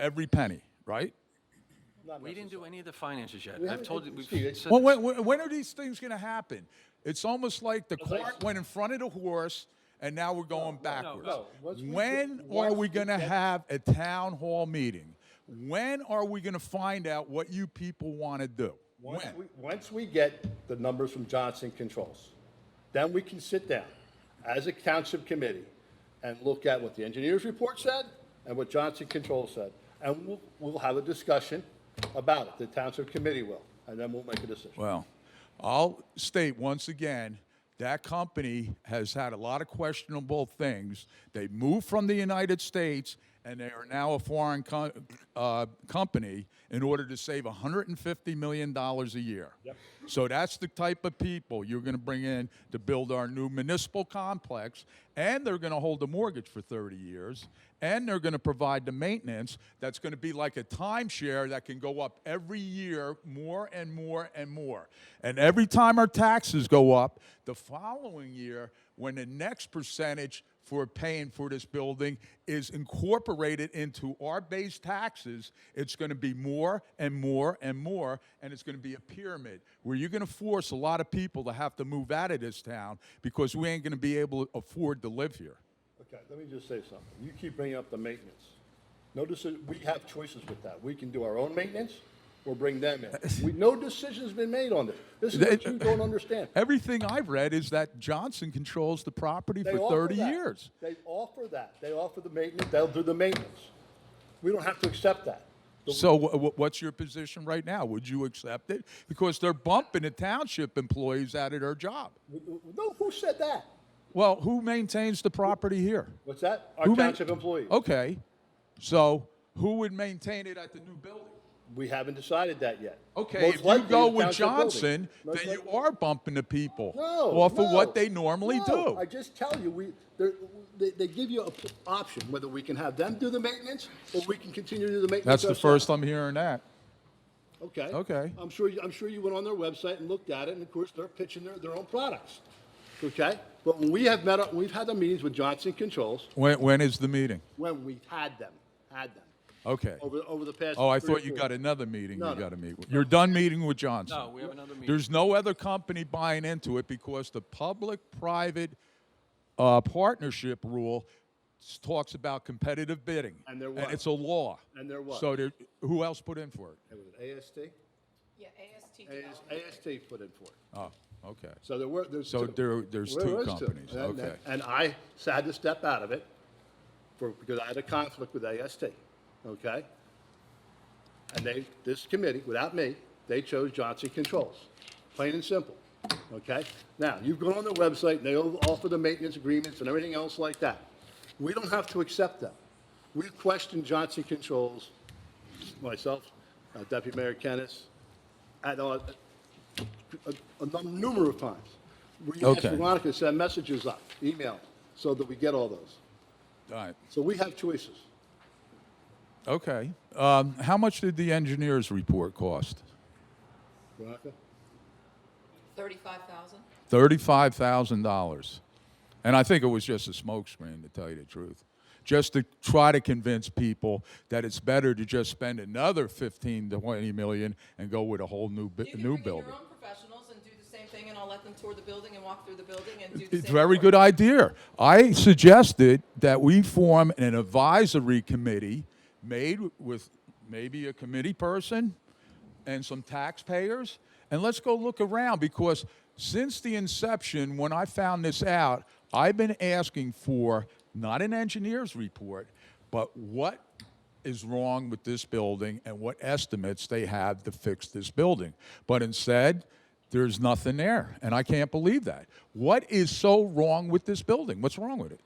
every penny, right? We didn't do any of the finances yet. We I've haven't- told you, we've Steve, it's- said Well, this. when, when- when are these things going to happen? It's almost like the I cart said- went in front of the horse, and now we're going backwards. no. Once we get- When are once we we going to get- have a town hall meeting? When are we going to find out what you people want to do? Once When? we, once we get the numbers from Johnson Controls, then we can sit down as a township committee and look at what the engineer's report said and what Johnson Controls said. And we'll, we'll have a discussion about it, the township committee will, and then we'll make a decision. Well, I'll state once again that company has had a lot of questionable things. They moved from the United States and they are now a foreign co- uh, company in order to save $150 million a year. So that's the type of people you're going to bring in to build our new municipal complex, and they're going to hold the mortgage for 30 years, and they're going to provide the maintenance that's going to be like a timeshare that can go up every year more and more and more. And every time our taxes go up, the following year, when the next percentage for paying for this building is incorporated into our base taxes, it's going to be more and more and more, and it's going to be a pyramid where you're going to force a lot of people to have to move out of this town because we ain't going to be able to afford to live here. Okay, let me just say something. You keep bringing up the maintenance. Notice that we have choices with that. We can do our own maintenance or bring them in. We, no decision's been made on this. This is what you don't understand. Everything I've read is that Johnson controls the property They for offer 30 that. years. They offer that. They offer the maintenance. They'll do the maintenance. We don't have to accept that. So wh- wh- what's your position right now? Would you accept it? Because they're bumping the township employees out of their job. W- w- No, who said that? Well, who maintains the property here? What's that? Our Who ma- Oh. township employees. Okay, so who would maintain it at the new building? We haven't decided that yet. Okay, Most if likely you go the with township building. Johnson, Most then you likely- are bumping the people No. off of no, what they normally no. do. I just tell you, we, they're- they, they give you an option, whether we can have them do the maintenance or we can continue to do the maintenance. That's the ourselves. first I'm hearing that. Okay. Okay. I'm sure, you- I'm sure you went on their website and looked at it, and of course, they're pitching their, their own products. Okay? But when we have met, up- we've had the meetings with Johnson Controls, When, when is the meeting? when we had them, had them, Okay. over, over the past. Oh, I three or thought you four. got another meeting No, you no. got to meet with. You're done meeting with Johnson. No, we have another meeting. There's no other company buying into it because the public-private uh, partnership rule s- talks about competitive bidding. And there was. it's a law. And there was. So there, who else put in for it? It was AST? Yeah, AST AS- development. AST put in for it. Oh, okay. So there were, there's So two. there- there's two was companies, And- and- okay. And I had to step out of it for, because I had a conflict with AST, okay? And they, this committee, without me, they chose Johnson Controls, plain and simple, okay? Now, you've gone on their website, and they offer the maintenance agreements and everything else like that. We don't have to accept them. We've questioned Johnson Controls, myself, uh, Deputy Mayor Kennis, at, uh, a, a num- number of times. We asked Okay. Veronica to send messages up, email, so that we get all those. All right. So we have choices. Okay. Um, how much did the engineer's report cost? Veronica? 35,000? Thirty-five thousand dollars, and I think it was just a smokescreen, to tell you the truth, just to try to convince people that it's better to just spend another fifteen to twenty million and go with a whole new bu- You new can bring in your building. own professionals and do the same thing, and I'll let them tour the building and walk through the building and do the same. It's a very report. good idea. I suggested that we form an advisory committee made with maybe a committee person and some taxpayers, and let's go look around because since the inception, when I found this out, I've been asking for not an engineer's report, but what is wrong with this building and what estimates they have to fix this building. But instead, there's nothing there, and I can't believe that. What is so wrong with this building? What's wrong with it?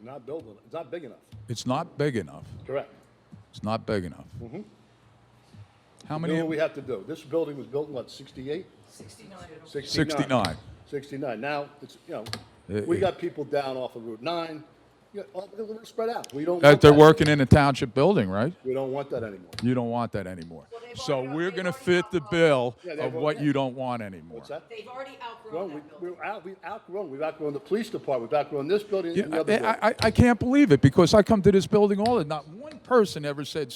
Not building, it's not big enough. It's not big enough. Correct. It's not big enough. How Do many? what we have to do. This building was built in what, 68? 69. 69. 69. 69. Now, it's, you know, we Uh, got people down off of Route 9. You know, all- We're spread out. We don't. That want Uh, they're that. working in a township building, right? We don't want that anymore. You don't want that anymore. Well, they've So already- we're they've going to already fit the outgrown- bill Yeah, they've of al- what yeah. you don't want anymore. What's that? They've already Well, outgrown we- that building. We're out, we've outgrown, we've outgrown the police department, we've outgrown this building Yeah, and the other building. I, I, I can't believe it because I come to this building all the, not one person ever said,